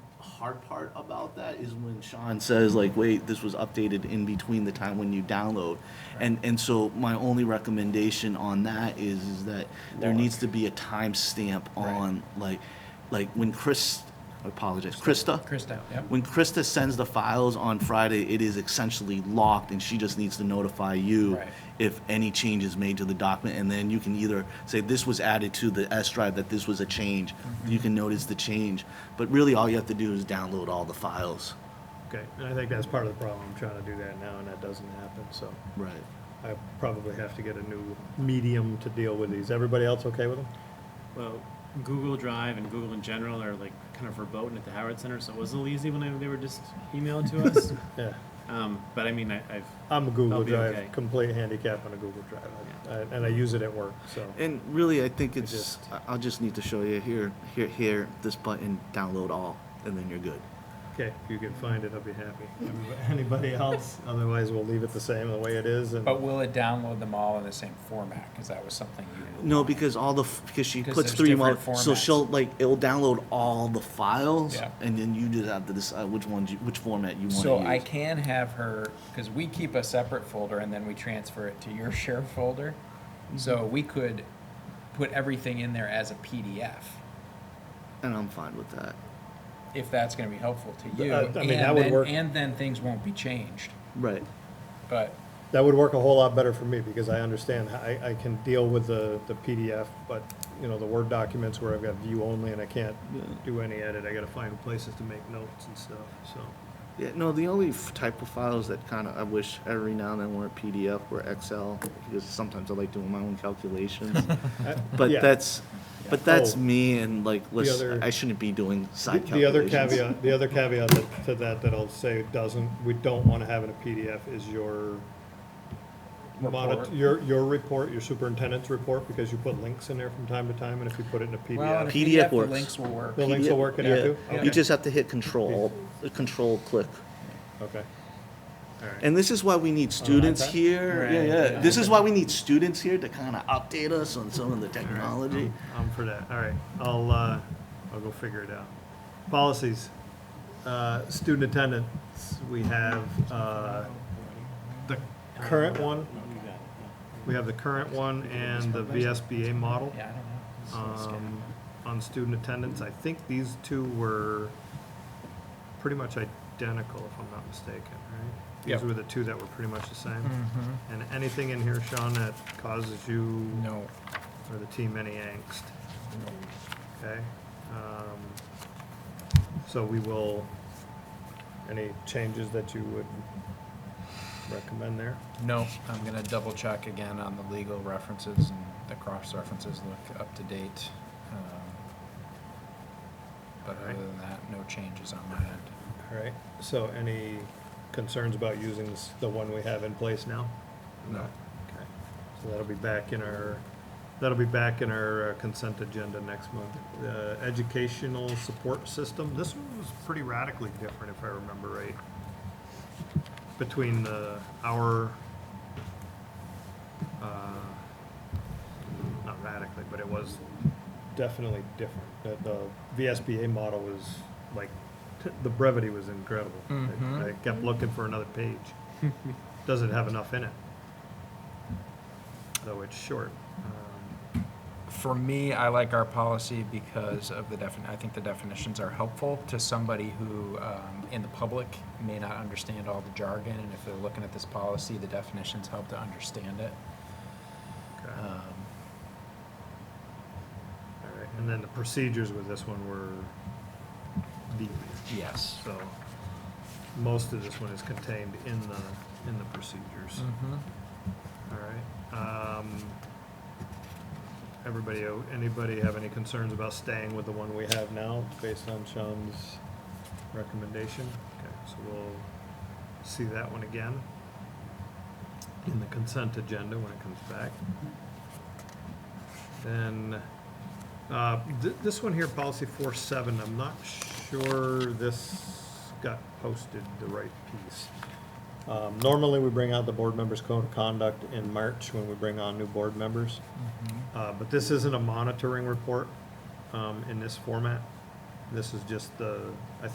hard part about that is when Sean says like, wait, this was updated in between the time when you download. And, and so my only recommendation on that is, is that there needs to be a timestamp on like, like when Chris, I apologize, Krista? Krista, yep. When Krista sends the files on Friday, it is essentially locked and she just needs to notify you Right. if any change is made to the document, and then you can either say this was added to the S drive, that this was a change. You can notice the change, but really all you have to do is download all the files. Okay, and I think that's part of the problem, I'm trying to do that now, and that doesn't happen, so Right. I probably have to get a new medium to deal with these. Everybody else okay with them? Well, Google Drive and Google in general are like kind of verboten at the Howard Center, so it was a little easy when I- they were just emailed to us. Yeah, Um, but I mean, I, I've, I'm a Google I'll be okay. Drive, complete handicap on a Google Drive, I- I- and I use it at work, so. And really, I think it's, just- I- I'll just need to show you here, here, here, this button, download all, and then you're good. Okay, if you can find it, I'll be happy. Everybody- Anybody else? Otherwise, we'll leave it the same, the way it is, and. But will it download them all in the same format? Because that was something you. No, because all the, f- because she Because puts there's three mo, different so formats. she'll, like, it'll download all the files, Yeah. and then you just have to decide which ones, you- which format you want to use. So I can have her, because we keep a separate folder and then we transfer it to your share folder. So Mm-hmm. we could put everything in there as a PDF, And I'm fine with that. if that's gonna be helpful to you. Uh, I mean, that and would then- work. And then things won't be changed, Right. but, That would work a whole lot better for me, because I understand, I, I can deal with the, the PDF, but, you know, the Word documents where I've got view only and I can't do any edit, I gotta find places to make notes and stuff, so. Yeah, no, the only f- type of files that kind of I wish every now and then weren't PDF were Excel because sometimes I like doing my own calculations. but Uh, Yeah. that's, but that's Oh. me and like, listen, other- I shouldn't be doing side The other calculations. caveat, the other caveat that- to that, that I'll say doesn't, we don't wanna have in a PDF is your Report. monit- your, your report, your superintendent's report, because you put links in there from time to time, and if you put it in a well, in PDF, a PDF PDF, the works. links will work. The links will work in yeah. there too? You Okay. just have to hit Control, Control click. okay. All right. And this is why we need students that? here. Right. Yeah, yeah. This is why we need students here to kind of update us on some of the technology. I'm for that, all right, I'll, uh, I'll go figure it out. Policies, uh, student attendance, we have, uh, the current one, you got it, yeah. we have the current one and the VSBA model. Yeah, I don't know. It's- it's- um, on student attendance. I think these two were pretty much identical, if I'm not mistaken, right? These Yep. were the two that were pretty much the same. Mhm. And anything in here, Sean, that causes you No, or the team any angst, okay? Um, So we will, any changes that you would recommend there? no, I'm gonna double check again on the legal references and the cross references look up to date. um, But other Alright. than that, no changes on my end. All right, so any concerns about using this- the one we have in place now? No. Okay, so that'll be back in our, that'll be back in our uh, consent agenda next month. The educational support system, this one was pretty radically different, if I remember right. Between the, our, uh, not radically, but it was definitely different. The- The VSBA model was like, t- the brevity was incredible. I- Mhm. I kept looking for another page. Doesn't have enough in it though it's short. Um, For me, I like our policy because of the defin, I think the definitions are helpful to somebody who, um, in the public, may not understand all the jargon, and if they're looking at this policy, the definitions help to understand it. okay. Um, All right. And then the procedures with this one were deep. Yes. So most of this one is contained in the, in the procedures. Mhm. All right. Um, Everybody, o- anybody have any concerns about staying with the one we have now based on Sean's recommendation? Okay, so we'll see that one again in the consent agenda when it comes back. Then, uh, th- this one here, policy four seven, I'm not sure this got posted the right piece. Um, Normally, we bring out the board members' code of conduct in March when we bring on new board members. Uh, But this isn't a monitoring report um, in this format. This is just the, I